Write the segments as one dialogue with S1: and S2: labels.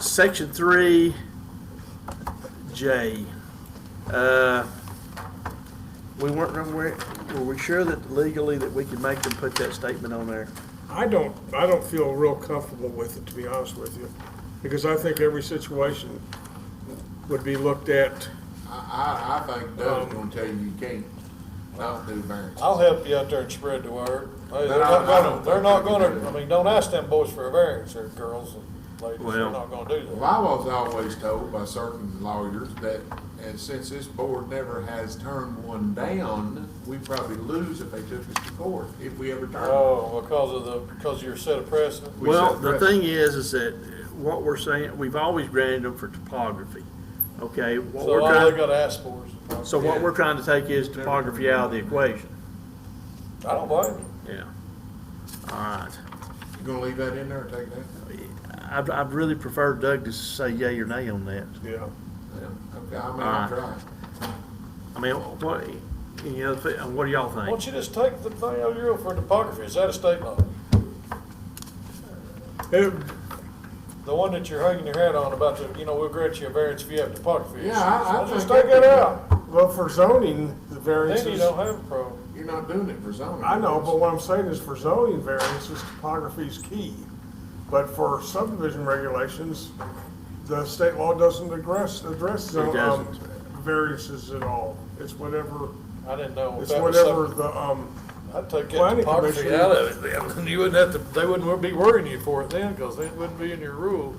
S1: Section three, J. Uh, We weren't, were we- were we sure that legally that we could make them put that statement on there?
S2: I don't, I don't feel real comfortable with it, to be honest with you, because I think every situation would be looked at.
S3: I, I, I think
S2: Um,
S3: Doug's gonna tell you you can't, not do variance.
S4: I'll help you out there and spread the word. Hey, They're
S3: But I-
S4: not
S3: I don't
S4: gonna, they're not
S3: think we can do
S4: gonna, I
S3: that.
S4: mean, don't ask them boys for a variance, or girls and ladies,
S1: Well-
S4: they're not gonna do
S3: Well,
S4: that.
S3: I was always told by certain lawyers that, and since this board never has turned one down, we probably lose if they took us to court, if we ever turn. it.
S4: Oh, because of the, because of your set of precedent?
S3: We
S1: Well,
S3: set
S1: the
S3: precedent.
S1: thing is, is that what we're saying, we've always granted them for topography, okay? What
S4: So
S1: we're
S4: all they
S1: trying,
S4: gotta ask for is,
S1: so what we're trying to take is topography out of the equation,
S4: I don't blame you.
S1: yeah. All right.
S3: You gonna leave that in there or take that?
S1: I'd, I'd really prefer Doug to say yay or nay on that.
S2: Yeah.
S3: Yeah, Okay, I mean, I'll try.
S1: I mean, what, you know, what do y'all
S4: Why
S1: think?
S4: don't you just take the thing over here for topography, is that a state law?
S2: It-
S4: The one that you're hanging your hat on about the, you know, we'll grant you a variance if you have topography issues.
S3: Yeah, I- I
S4: Well, Just
S3: think-
S4: take that out,
S2: Well, for zoning, the
S4: then you
S2: variances,
S4: don't have a problem.
S3: You're not doing it for zoning.
S2: I know, but what I'm saying is for zoning variances, topography is key. But for subdivision regulations, the state law doesn't address, address
S1: It
S2: um,
S1: doesn't.
S2: variances at all. It's whatever,
S4: I didn't know if
S2: it's
S4: that was something.
S2: whatever the, um,
S4: I'd take that
S2: Planning
S4: topography
S2: commission-
S4: out of it then, you wouldn't have to, they wouldn't be worrying you for it then, because it wouldn't be in your rule.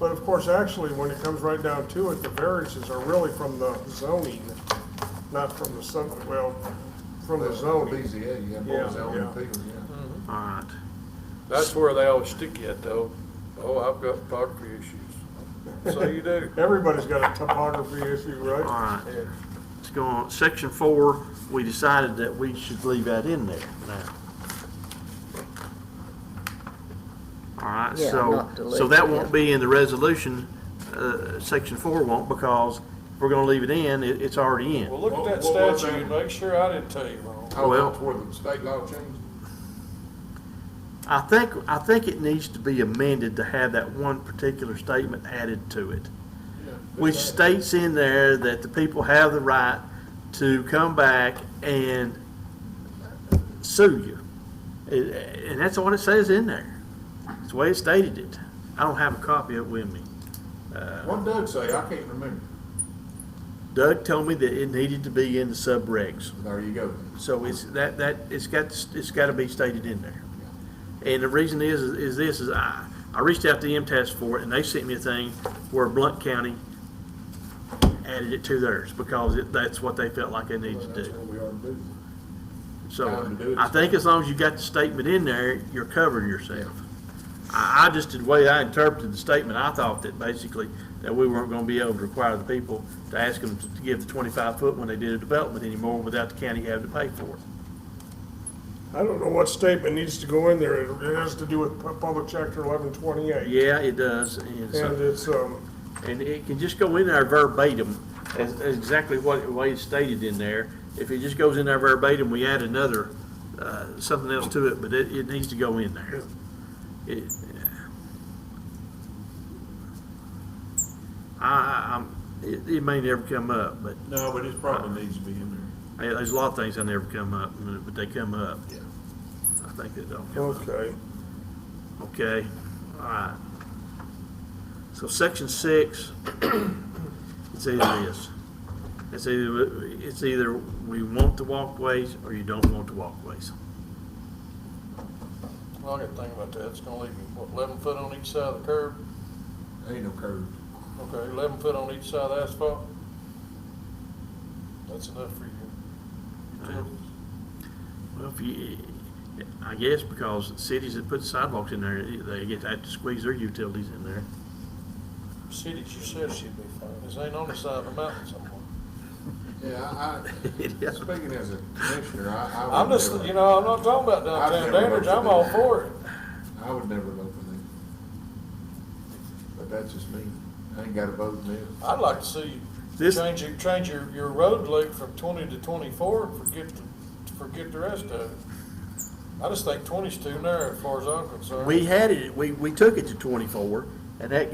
S2: But of course, actually, when it comes right down to it, the variances are really from the zoning, not from the sub, well, from the zoning.
S3: BZA, you have
S2: Yeah,
S3: more zoning
S2: yeah.
S3: people,
S1: All
S3: yeah.
S1: right.
S4: That's where they always stick you at though, oh, I've got topography issues. So you do.
S2: Everybody's got a topography issue,
S1: All
S2: right?
S1: right. Let's go on. Section four, we decided that we should leave that in there now. All right,
S5: Yeah,
S1: so,
S5: not to
S1: so
S5: leave
S1: that
S5: it
S1: won't
S5: in.
S1: be in the resolution, uh, section four won't, because if we're gonna leave it in, it, it's already in.
S4: Well, look at that
S3: What- what was
S4: statue and
S3: that?
S4: make sure I didn't tell you wrong.
S3: Oh,
S1: Well-
S3: that's where the state law changed?
S1: I think, I think it needs to be amended to have that one particular statement added to it. Which states in there that the people have the right to come back and sue you. It- And that's what it says in there. It's the way it stated it. I don't have a copy of it with me.
S3: What Doug say? I can't remember.
S1: Doug told me that it needed to be in the subregs.
S3: There you go.
S1: So it's, that, that, it's got, it's gotta be stated in there. And the reason is, is this, is I, I reached out to MTS for it, and they sent me a thing where Blunt County added it to theirs, because it, that's what they felt like they needed
S3: Well,
S1: to
S3: That's
S1: do.
S3: what we ought to do. Time to do
S1: So,
S3: it.
S1: I think as long as you got the statement in there, you're covering yourself. I, I just, the way I interpreted the statement, I thought that basically, that we weren't gonna be able to require the people to ask them to give the twenty-five foot when they did a development anymore, without the county having to pay for it.
S2: I don't know what statement needs to go in there. It it has to do with pu- public chapter eleven twenty-eight.
S1: Yeah, it does, and so.
S2: And it's, um,
S1: And it can just go in there verbatim, as, as exactly what, the way it's stated in there. If it just goes in there verbatim, we add another, uh, something else to it, but it, it needs to go in there. It- I, I- I'm, it, it may never come up, but
S3: No, but it probably needs to be in there.
S1: I- there's a lot of things that never come up, but they come up.
S3: Yeah.
S1: I think they don't come up.
S2: okay.
S1: Okay, all right. So section six, it's either this. It's either, it's either we want the walkways or you don't want the walkways.
S4: Well, I gotta think about that, it's gonna leave you, what, eleven foot on each side of the curb?
S3: Ain't no curve.
S4: Okay, eleven foot on each side of the asphalt? That's enough for you. Utilities.
S1: Well, if you, I guess because cities that put sidewalks in there, they get, have to squeeze their utilities in there.
S4: Cities, you said should be fine, this ain't on the side of a mountain somewhere.
S3: Yeah, I, I- speaking as a commissioner, I, I
S4: I'm
S3: would
S4: just, you
S3: never,
S4: know, I'm not talking about
S3: I've never
S4: downtown Dandridge,
S3: voted
S4: I'm all
S3: for that.
S4: for it.
S3: I would never vote for them. But that's just me. I ain't got a vote in this.
S4: I'd like to see you
S1: This-
S4: change your, change your, your road length from twenty to twenty-four and forget the, forget the rest of it. I just think twenty's too narrow as far as I'm concerned.
S1: We had it, we, we took it to twenty-four and that